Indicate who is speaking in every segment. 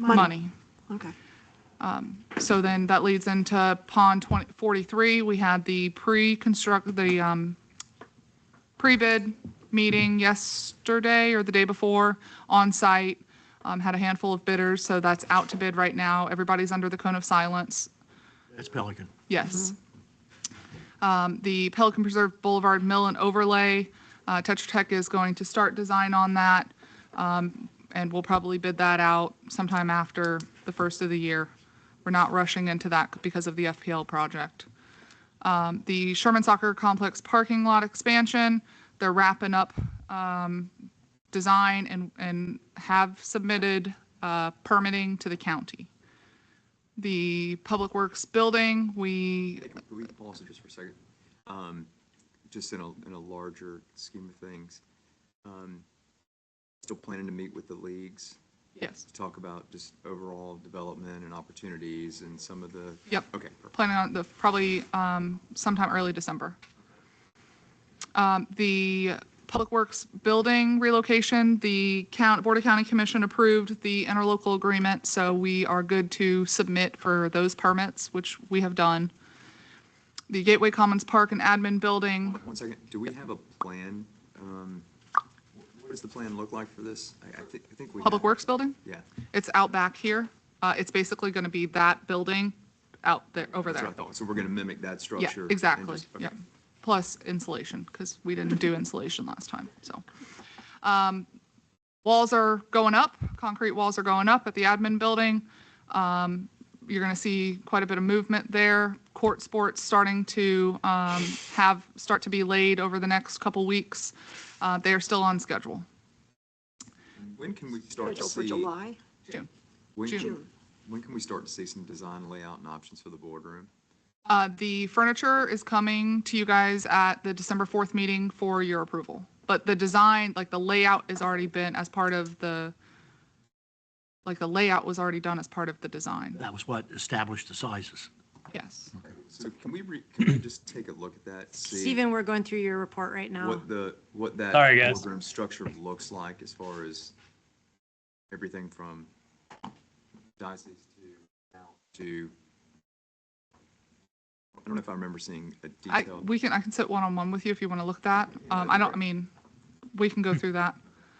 Speaker 1: money.
Speaker 2: Okay.
Speaker 1: So then that leads into pond 20 43. We had the pre-construct, the um, pre-bid meeting yesterday or the day before on site. Um, Had a handful of bidders, so that's out to bid right now. Everybody's under the cone of silence.
Speaker 3: That's Pelican.
Speaker 1: Yes. Um, The Pelican Preserve Boulevard Mill and Overlay, uh, Tetra Tech is going to start design on that, um, and we'll probably bid that out sometime after the first of the year. We're not rushing into that because of the FPL project. Um, The Sherman Soccer Complex parking lot expansion, they're wrapping up um, design and and have submitted uh, permitting to the county. The Public Works Building, we
Speaker 4: Can we pause it just for a second? Um, Just in a, in a larger scheme of things, um, still planning to meet with the leagues
Speaker 1: Yes,
Speaker 4: to talk about just overall development and opportunities and some of the.
Speaker 1: Yep.
Speaker 4: Okay, perfect.
Speaker 1: planning on the, probably um, sometime early December. Um, The Public Works Building relocation, the count, Board of County Commission approved the interlocal agreement, so we are good to submit for those permits, which we have done. The Gateway Commons Park and Admin Building,
Speaker 4: One second, do we have a plan? Um, What does the plan look like for this? I, I think, I think we.
Speaker 1: Public
Speaker 4: have-
Speaker 1: Works Building,
Speaker 4: Yeah.
Speaker 1: it's out back here. Uh, It's basically going to be that building out there, over
Speaker 4: That's
Speaker 1: there.
Speaker 4: what I thought. So we're going to mimic that
Speaker 1: Yeah,
Speaker 4: structure. and
Speaker 1: exactly,
Speaker 4: just- okay.
Speaker 1: yeah. Plus insulation, because we didn't do insulation last time, so. Um, Walls are going up, concrete walls are going up at the admin building. Um, You're going to see quite a bit of movement there. Court sports starting to um, have, start to be laid over the next couple weeks. Uh, They are still on schedule.
Speaker 4: When can we start to
Speaker 2: Scheduled for
Speaker 4: see?
Speaker 2: July?
Speaker 1: June.
Speaker 4: when can-
Speaker 2: June.
Speaker 4: When can we start to see some design layout and options for the boardroom?
Speaker 1: Uh, The furniture is coming to you guys at the December 4th meeting for your approval. But the design, like the layout has already been as part of the, like the layout was already done as part of the design.
Speaker 3: That was what established the sizes.
Speaker 1: Yes.
Speaker 4: So can we, re- can we just take a look at that? see
Speaker 5: Stephen, we're going through your report right now.
Speaker 4: What the, what that.
Speaker 6: Sorry, guys.
Speaker 4: boardroom structure looks like as far as everything from diocese to, now to. I don't know if I remember seeing a
Speaker 1: I,
Speaker 4: detailed.
Speaker 1: we can, I can sit one-on-one with you if you want to look at that. Um, I don't, I mean, we can go through that.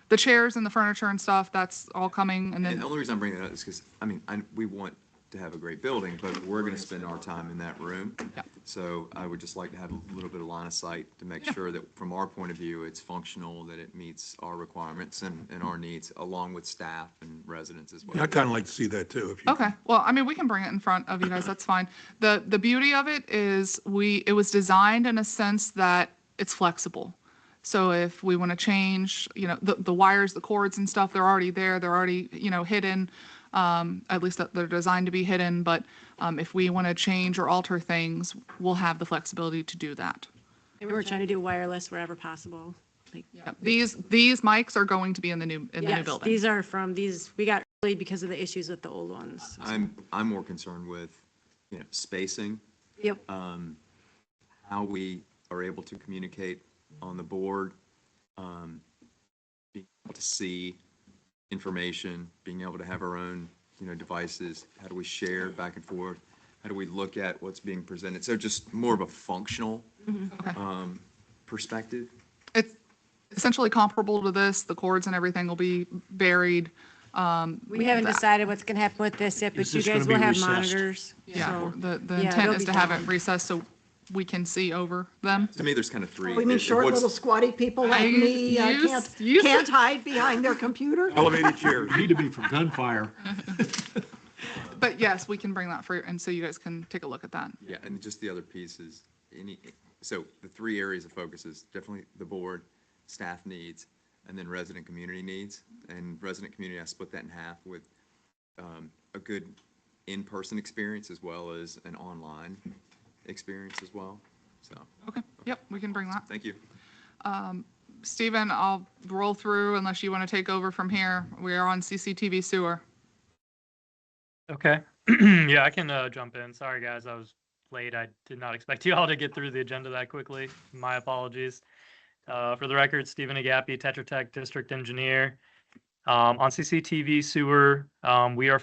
Speaker 1: The chairs and the furniture and stuff, that's all coming and
Speaker 4: And the
Speaker 1: then,
Speaker 4: only reason I'm bringing that up is because, I mean, I, we want to have a great building, but we're going to spend our time in that room.
Speaker 1: Yeah.
Speaker 4: So I would just like to have a little bit of line of sight to make sure that from our point of view, it's functional, that it meets our requirements and, and our needs, along with staff and residents as well.
Speaker 7: I'd kind of like to see that too, if you.
Speaker 1: okay. Well, I mean, we can bring it in front of you guys, that's fine. The, the beauty of it is we, it was designed in a sense that it's flexible. So if we want to change, you know, the, the wires, the cords and stuff, they're already there, they're already, you know, hidden. Um, at least that they're designed to be hidden, but, um, if we want to change or alter things, we'll have the flexibility to do that.
Speaker 5: We were trying to do wireless wherever possible. Like,
Speaker 1: Yep. These, these mics are going to be in the new, in the new
Speaker 5: yes,
Speaker 1: building.
Speaker 5: these are from, these, we got early because of the issues with the old ones.
Speaker 3: Uh,
Speaker 4: I'm, I'm more concerned with, you know, spacing,
Speaker 5: Yep.
Speaker 3: um,
Speaker 4: um, how we are able to communicate on the board, um, being able to see information, being able to have our own, you know, devices. How do we share back and forth? How do we look at what's being presented? So just more of a functional
Speaker 2: Mm-hmm.
Speaker 1: Okay.
Speaker 4: um, perspective.
Speaker 1: It's essentially comparable to this. The cords and everything will be buried.
Speaker 5: We haven't decided what's going to happen with this yet, but
Speaker 3: Is
Speaker 5: you
Speaker 3: this gonna
Speaker 5: guys will
Speaker 3: be
Speaker 5: have
Speaker 3: recessed?
Speaker 5: monitors.
Speaker 1: Yeah,
Speaker 5: so-
Speaker 1: the, the
Speaker 5: yeah,
Speaker 1: intent
Speaker 5: they'll
Speaker 1: is
Speaker 5: be
Speaker 1: to have it
Speaker 5: fine.
Speaker 1: recessed so we can see over them.
Speaker 4: To me, there's kind of three.
Speaker 2: We mean
Speaker 4: It-
Speaker 2: short
Speaker 4: what's-
Speaker 2: little squatty people like
Speaker 1: you-
Speaker 2: me, uh,
Speaker 1: you-
Speaker 2: can't,
Speaker 1: you-
Speaker 2: can't hide behind their computer?
Speaker 7: Elevated chairs.
Speaker 3: Need to be from gunfire.
Speaker 1: But yes, we can bring that for, and so you guys can take a look at that.
Speaker 4: Yeah, and just the other piece is any, so the three areas of focus is definitely the board, staff needs, and then resident community needs. And resident community, I split that in half with um, a good in-person experience as well as an online experience as well. So,
Speaker 1: Okay, yep, we can bring that.
Speaker 4: thank you.
Speaker 1: Stephen, I'll roll through unless you want to take over from here. We are on CCTV sewer.
Speaker 6: Okay. yeah, I can uh, jump in. Sorry, guys, I was late. I did not expect you all to get through the agenda that quickly. My apologies. Uh, for the record, Stephen Agapi, Tetra Tech District Engineer. Um, on CCTV sewer, um, we are.